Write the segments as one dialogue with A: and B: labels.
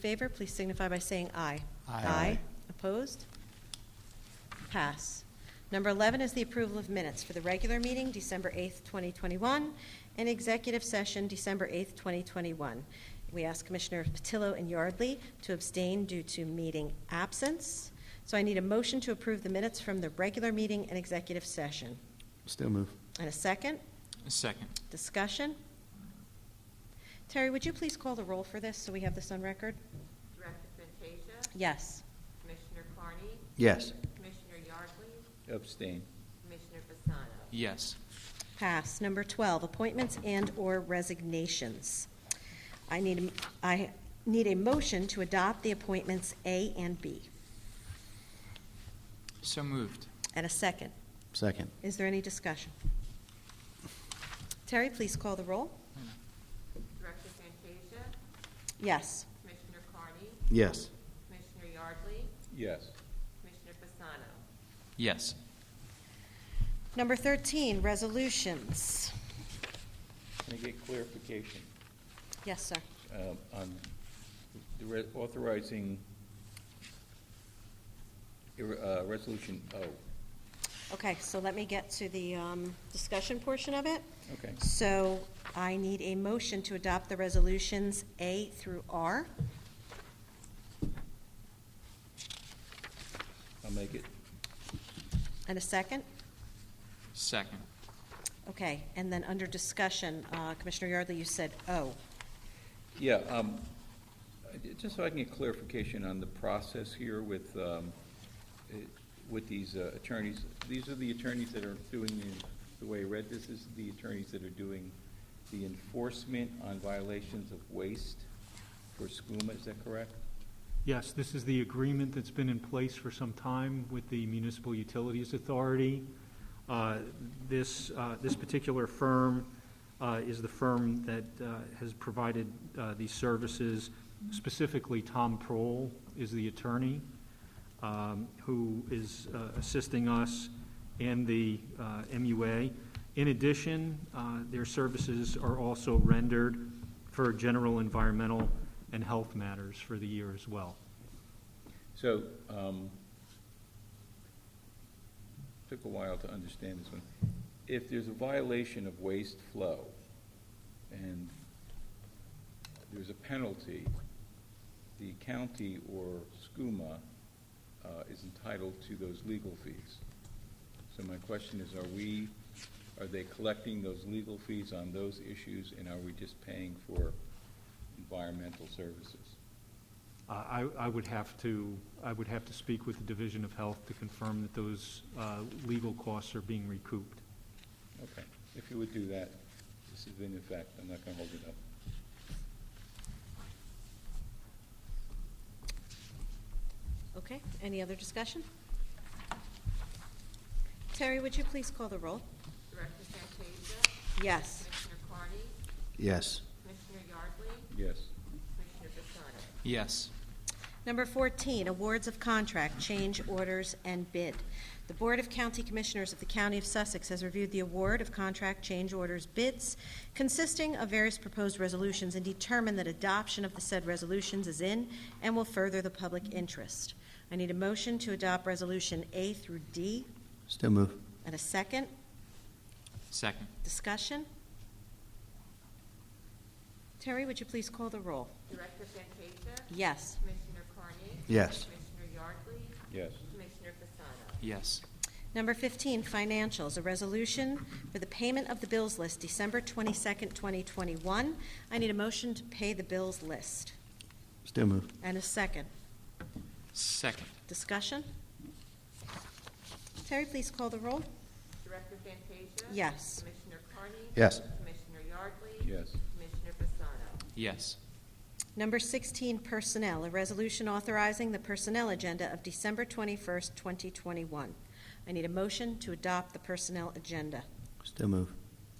A: favor, please signify by saying aye.
B: Aye.
A: Opposed? Pass. Number 11 is the approval of minutes for the regular meeting, December 8th, 2021, and executive session, December 8th, 2021. We ask Commissioner Patillo and Yardley to abstain due to meeting absence. So I need a motion to approve the minutes from the regular meeting and executive session.
B: Still move.
A: And a second?
C: Second.
A: Discussion? Terry, would you please call the roll for this, so we have this on record?
D: Director Fantasia?
A: Yes.
D: Commissioner Carney?
B: Yes.
D: Commissioner Yardley?
E: Abstain.
D: Commissioner Fasano?
C: Yes.
A: Pass. Number 12, appointments and/or resignations. I need, a- I need a motion to adopt the appointments A and B.
C: So moved.
A: And a second.
B: Second.
A: Is there any discussion? Terry, please call the roll.
D: Director Fantasia?
A: Yes.
D: Commissioner Carney?
B: Yes.
D: Commissioner Yardley?
E: Yes.
D: Commissioner Fasano?
C: Yes.
A: Number 13, resolutions.
E: Can I get clarification
A: Yes, sir.
E: um, on the re- authorizing ir- uh, Resolution O?
A: Okay, so let me get to the um, discussion portion of it.
E: Okay.
A: So I need a motion to adopt the resolutions A through R.
E: I'll make it.
A: And a second?
C: Second.
A: Okay, and then under discussion, uh, Commissioner Yardley, you said O.
E: Yeah, um, I did- just so I can get clarification on the process here with, um, eh, with these uh, attorneys. These are the attorneys that are doing, the- the way I read this, is the attorneys that are doing the enforcement on violations of waste for SCUMA, is that correct?
F: Yes, this is the agreement that's been in place for some time with the Municipal Utilities Authority. Uh, This, uh, this particular firm uh, is the firm that uh, has provided uh, these services. Specifically, Tom Prohl is the attorney um, who is uh, assisting us and the uh, MUA. In addition, uh, their services are also rendered for general environmental and health matters for the year as well.
E: So, um, took a while to understand this one. If there's a violation of waste flow and there's a penalty, the county or SCUMA uh, is entitled to those legal fees. So my question is, are we, are they collecting those legal fees on those issues and are we just paying for environmental services?
F: Uh, I, I would have to, I would have to speak with the Division of Health to confirm that those uh, legal costs are being recouped.
E: Okay, if you would do that, this is in effect, I'm not gonna hold it up.
A: Okay, any other discussion? Terry, would you please call the roll?
D: Director Fantasia?
A: Yes.
D: Commissioner Carney?
B: Yes.
D: Commissioner Yardley?
E: Yes,
D: Commissioner Fasano?
C: Yes.
A: Number 14, awards of contract, change orders, and bid. The Board of County Commissioners of the County of Sussex has reviewed the award of contract change orders bids consisting of various proposed resolutions and determined that adoption of the said resolutions is in and will further the public interest. I need a motion to adopt Resolution A through D
B: Still move.
A: and a second.
C: Second.
A: Discussion? Terry, would you please call the roll?
D: Director Fantasia?
A: Yes.
D: Commissioner Carney?
B: Yes.
D: Commissioner Yardley?
E: yes,
D: Commissioner Fasano?
C: Yes.
A: Number 15, financials, a resolution for the payment of the bills list, December 22nd, 2021. I need a motion to pay the bills list.
B: Still move.
A: And a second.
C: Second.
A: Discussion? Terry, please call the roll.
D: Director Fantasia?
A: Yes.
D: Commissioner Carney?
B: Yes.
D: Commissioner Yardley?
E: yes,
D: Commissioner Fasano?
C: Yes.
A: Number 16, personnel, a resolution authorizing the personnel agenda of December 21st, 2021. I need a motion to adopt the personnel agenda.
B: Still move.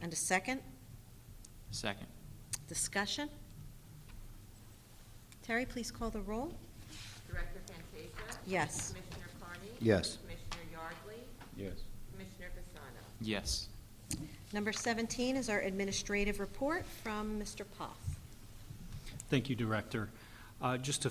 A: And a second.
C: Second.
A: Discussion? Terry, please call the roll.
D: Director Fantasia?
A: Yes.
D: Commissioner Carney?
B: Yes.
D: Commissioner Yardley?
E: yes,
D: Commissioner Fasano?
C: Yes.
A: Number 17 is our administrative report from Mr. Poff.
F: Thank you, Director. Uh, Just to